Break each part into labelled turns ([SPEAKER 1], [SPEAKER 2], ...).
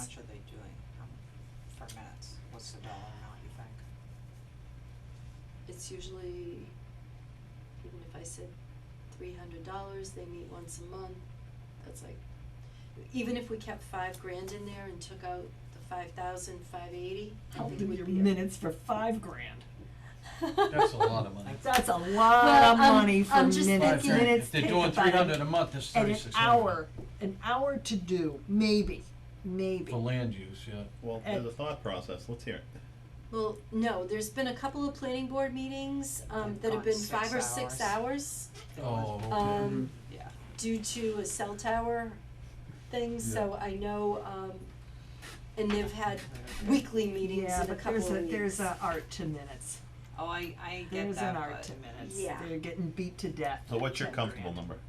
[SPEAKER 1] be doing um for minutes? What's the dollar amount you think?
[SPEAKER 2] It's usually, even if I said three hundred dollars, they meet once a month, that's like, even if we kept five grand in there and took out the five thousand, five eighty, I
[SPEAKER 3] I'll
[SPEAKER 2] think it
[SPEAKER 3] do
[SPEAKER 2] would be.
[SPEAKER 3] your
[SPEAKER 2] a-
[SPEAKER 3] minutes for five grand.
[SPEAKER 4] That's a lot of money.
[SPEAKER 3] That's a
[SPEAKER 2] Well,
[SPEAKER 3] lot of
[SPEAKER 2] I'm-
[SPEAKER 3] money for
[SPEAKER 2] I'm just
[SPEAKER 3] minutes,
[SPEAKER 2] Five
[SPEAKER 3] minutes
[SPEAKER 2] thinking- grand.
[SPEAKER 4] If they're
[SPEAKER 3] take
[SPEAKER 4] doing
[SPEAKER 3] about
[SPEAKER 4] three hundred a month, that's
[SPEAKER 3] And an
[SPEAKER 4] thirty-six
[SPEAKER 3] hour,
[SPEAKER 4] hundred.
[SPEAKER 3] an hour to do, maybe, maybe.
[SPEAKER 4] For land use, yeah.
[SPEAKER 5] Well,
[SPEAKER 3] And-
[SPEAKER 5] there's a thought process, let's hear it.
[SPEAKER 2] Well, no, there's been a couple of planning board meetings, um,
[SPEAKER 1] They've
[SPEAKER 2] that
[SPEAKER 1] gone
[SPEAKER 2] have been
[SPEAKER 1] six
[SPEAKER 2] five or six hours,
[SPEAKER 4] Oh, okay.
[SPEAKER 2] um,
[SPEAKER 1] Yeah.
[SPEAKER 2] due to a cell tower thing, so I know, um, and they've had weekly meetings
[SPEAKER 3] Yeah,
[SPEAKER 2] and a
[SPEAKER 3] but
[SPEAKER 2] couple of
[SPEAKER 3] there's
[SPEAKER 2] weeks.
[SPEAKER 3] a, there's a art to minutes.
[SPEAKER 1] Oh, I I get
[SPEAKER 3] There's
[SPEAKER 1] that,
[SPEAKER 3] an art
[SPEAKER 1] but-
[SPEAKER 3] to minutes.
[SPEAKER 2] Yeah.
[SPEAKER 3] They're getting beat to death.
[SPEAKER 5] So
[SPEAKER 3] at
[SPEAKER 5] what's your
[SPEAKER 3] 10
[SPEAKER 5] comfortable
[SPEAKER 3] grand.
[SPEAKER 5] number?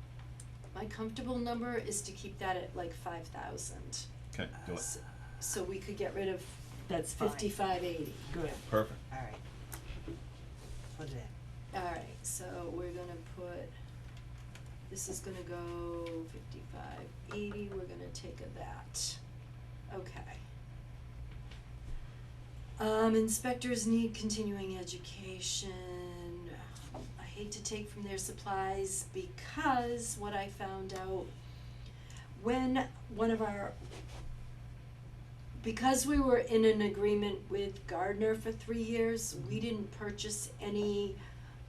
[SPEAKER 2] My comfortable number is to keep that at like five thousand, Uh,
[SPEAKER 5] Okay, do it.
[SPEAKER 2] S- so we could get rid of
[SPEAKER 3] That's fine.
[SPEAKER 2] fifty-five eighty.
[SPEAKER 3] Good.
[SPEAKER 5] Perfect.
[SPEAKER 1] All right. Put it in.
[SPEAKER 2] Alright, so we're gonna put, this is gonna go fifty-five eighty, we're gonna take a that, okay. Um, inspectors need continuing education, Um, I hate to take from their supplies because what I found out when one of our because we were in an agreement with Gardner for three years, we didn't purchase any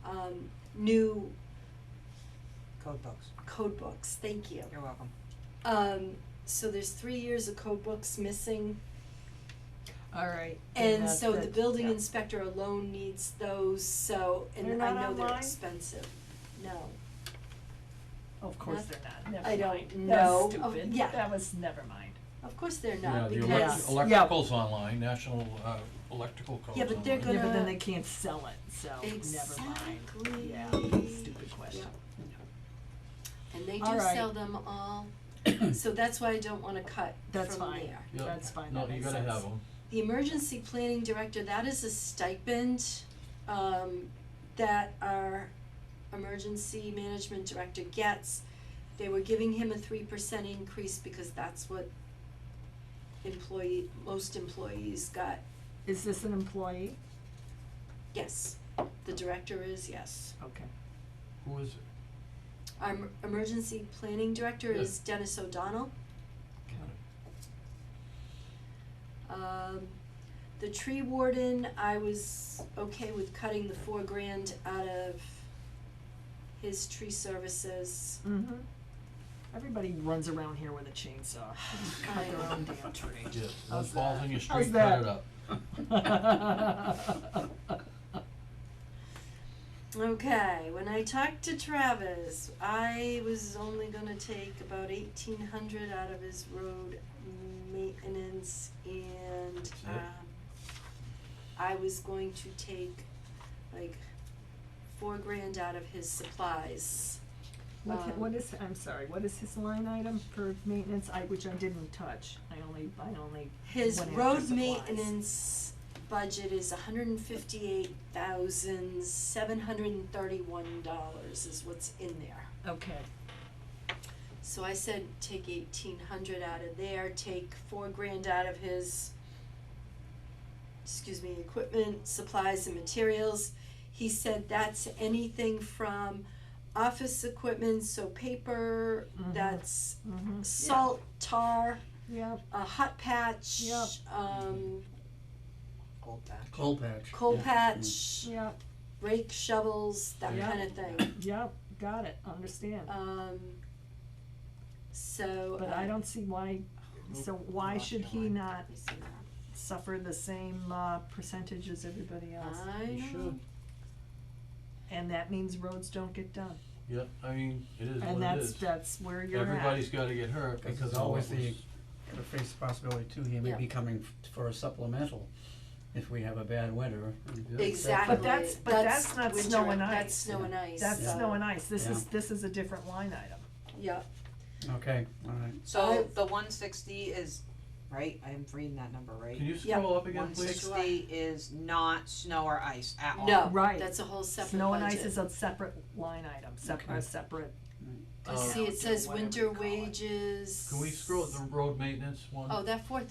[SPEAKER 2] um, new
[SPEAKER 1] Code books.
[SPEAKER 2] code books. Thank you.
[SPEAKER 1] You're welcome.
[SPEAKER 2] Um, so there's three years of code books missing,
[SPEAKER 3] All right.
[SPEAKER 2] and
[SPEAKER 3] that's
[SPEAKER 2] so the
[SPEAKER 3] it.
[SPEAKER 2] building
[SPEAKER 3] Yeah.
[SPEAKER 2] inspector alone needs those. So
[SPEAKER 3] They're
[SPEAKER 2] and I
[SPEAKER 3] not
[SPEAKER 2] know they're
[SPEAKER 3] online?
[SPEAKER 2] expensive. No.
[SPEAKER 3] Of course
[SPEAKER 2] Not-
[SPEAKER 3] they're not, never
[SPEAKER 2] I
[SPEAKER 3] mind.
[SPEAKER 2] don't
[SPEAKER 3] That
[SPEAKER 2] know. Oh,
[SPEAKER 3] was stupid.
[SPEAKER 2] yeah.
[SPEAKER 3] That was, never mind.
[SPEAKER 2] Of course they're
[SPEAKER 4] Yeah,
[SPEAKER 2] not
[SPEAKER 4] the
[SPEAKER 2] because
[SPEAKER 4] elec-
[SPEAKER 3] elect-
[SPEAKER 4] electrical's online, national, uh, electrical code's
[SPEAKER 2] Yeah,
[SPEAKER 4] online.
[SPEAKER 2] but they're
[SPEAKER 3] Yeah, but
[SPEAKER 2] Gonna-
[SPEAKER 3] then they can't sell it, so never mind.
[SPEAKER 2] Exactly.
[SPEAKER 3] Yeah, stupid question.
[SPEAKER 2] and they do
[SPEAKER 3] All right.
[SPEAKER 2] sell them all. so that's why I don't want to cut
[SPEAKER 3] That's
[SPEAKER 2] from
[SPEAKER 3] fine.
[SPEAKER 2] there.
[SPEAKER 4] Yeah,
[SPEAKER 3] That's fine, that makes
[SPEAKER 4] No, you gotta have
[SPEAKER 3] sense.
[SPEAKER 4] them.
[SPEAKER 2] The emergency planning director, that is a stipend, um, that our emergency management director gets. They were giving him a three percent increase because that's what employee, most employees got.
[SPEAKER 3] Is this an employee?
[SPEAKER 2] Yes, the director is, yes.
[SPEAKER 3] Okay.
[SPEAKER 4] Who is it?
[SPEAKER 2] Our em- emergency planning director
[SPEAKER 4] Yeah.
[SPEAKER 2] is Dennis O'Donnell.
[SPEAKER 3] Okay.
[SPEAKER 2] Um, the tree warden, I was okay with cutting the four grand out of his tree services.
[SPEAKER 3] Mm-hmm. Everybody runs around here with a chainsaw. Cut their own damn
[SPEAKER 4] Yeah,
[SPEAKER 3] tree.
[SPEAKER 4] those
[SPEAKER 3] How's
[SPEAKER 4] balls
[SPEAKER 3] that?
[SPEAKER 4] in your
[SPEAKER 3] How's
[SPEAKER 4] street, cut
[SPEAKER 3] that?
[SPEAKER 4] it up.
[SPEAKER 2] Okay, when I talked to Travis, I was only gonna take about eighteen hundred out of his road maintenance and,
[SPEAKER 4] it?
[SPEAKER 2] um, I was going to take like four grand out of his supplies.
[SPEAKER 3] What,
[SPEAKER 2] Um,
[SPEAKER 3] what is, I'm sorry, what is his line item for maintenance, I, which I didn't touch, I only, I only
[SPEAKER 2] His
[SPEAKER 3] went after
[SPEAKER 2] road
[SPEAKER 3] supplies.
[SPEAKER 2] maintenance budget is hundred and fifty-eight thousand, seven hundred and thirty-one dollars is what's in there.
[SPEAKER 3] Okay,
[SPEAKER 2] So I said, take eighteen hundred out of there, take four grand out of his, excuse me, equipment, supplies and materials. He said that's anything from office equipment, so paper,
[SPEAKER 3] Mhm.
[SPEAKER 2] that's
[SPEAKER 3] mm-hmm,
[SPEAKER 2] salt, tar,
[SPEAKER 3] yep,
[SPEAKER 2] a hot patch,
[SPEAKER 3] Yep.
[SPEAKER 2] um,
[SPEAKER 1] Gold back.
[SPEAKER 6] Coal patch.
[SPEAKER 2] coal
[SPEAKER 6] Yeah.
[SPEAKER 2] patch,
[SPEAKER 3] yep,
[SPEAKER 2] rake shovels, that
[SPEAKER 3] Yeah.
[SPEAKER 2] kind of thing.
[SPEAKER 3] yep, got it, understand,
[SPEAKER 2] Um, so.
[SPEAKER 3] but
[SPEAKER 2] uh,
[SPEAKER 3] I don't see why, so why
[SPEAKER 1] Not
[SPEAKER 3] should he
[SPEAKER 1] mine.
[SPEAKER 3] not
[SPEAKER 2] let me see that.
[SPEAKER 3] suffer the same, uh, percentage as everybody else?
[SPEAKER 2] I
[SPEAKER 4] You
[SPEAKER 2] don't
[SPEAKER 4] should.
[SPEAKER 2] know.
[SPEAKER 3] And that means roads don't get done,
[SPEAKER 4] Yeah, I mean, it is
[SPEAKER 3] and
[SPEAKER 4] what it
[SPEAKER 3] that's,
[SPEAKER 4] is.
[SPEAKER 3] that's where you're at.
[SPEAKER 4] Everybody's gotta get hurt
[SPEAKER 6] Because
[SPEAKER 4] because
[SPEAKER 6] it's
[SPEAKER 4] all
[SPEAKER 6] always
[SPEAKER 4] it was.
[SPEAKER 6] the, gotta face the possibility too, he may
[SPEAKER 2] Yeah.
[SPEAKER 6] be coming f- for a supplemental if we have a bad winter.
[SPEAKER 4] Yeah.
[SPEAKER 2] Exactly.
[SPEAKER 3] But that's- but that's not
[SPEAKER 2] winter-
[SPEAKER 3] snow and
[SPEAKER 2] That's
[SPEAKER 3] ice.
[SPEAKER 2] snow and ice.
[SPEAKER 3] That's
[SPEAKER 2] so-
[SPEAKER 3] snow and ice, this is,
[SPEAKER 6] Yeah.
[SPEAKER 3] this is a different line item,
[SPEAKER 2] Yeah,
[SPEAKER 6] Okay, all right.
[SPEAKER 1] So
[SPEAKER 2] I-
[SPEAKER 1] the one sixty is, right, I'm reading that number right.
[SPEAKER 4] Can you
[SPEAKER 2] Yeah.
[SPEAKER 4] scroll up again,
[SPEAKER 1] One
[SPEAKER 4] please?
[SPEAKER 1] sixty is not snow or ice at all.
[SPEAKER 2] no,
[SPEAKER 3] Oh, Right.
[SPEAKER 2] that's a whole separate
[SPEAKER 3] snow and ice
[SPEAKER 2] budget.
[SPEAKER 3] is a separate line item, separate,
[SPEAKER 6] Okay.
[SPEAKER 3] separate,
[SPEAKER 2] Cause
[SPEAKER 4] Um,
[SPEAKER 2] see, it says
[SPEAKER 3] Oh, Whatever
[SPEAKER 2] winter
[SPEAKER 3] you call it.
[SPEAKER 2] wages.
[SPEAKER 4] Can we scroll the road maintenance one?
[SPEAKER 2] Oh, that four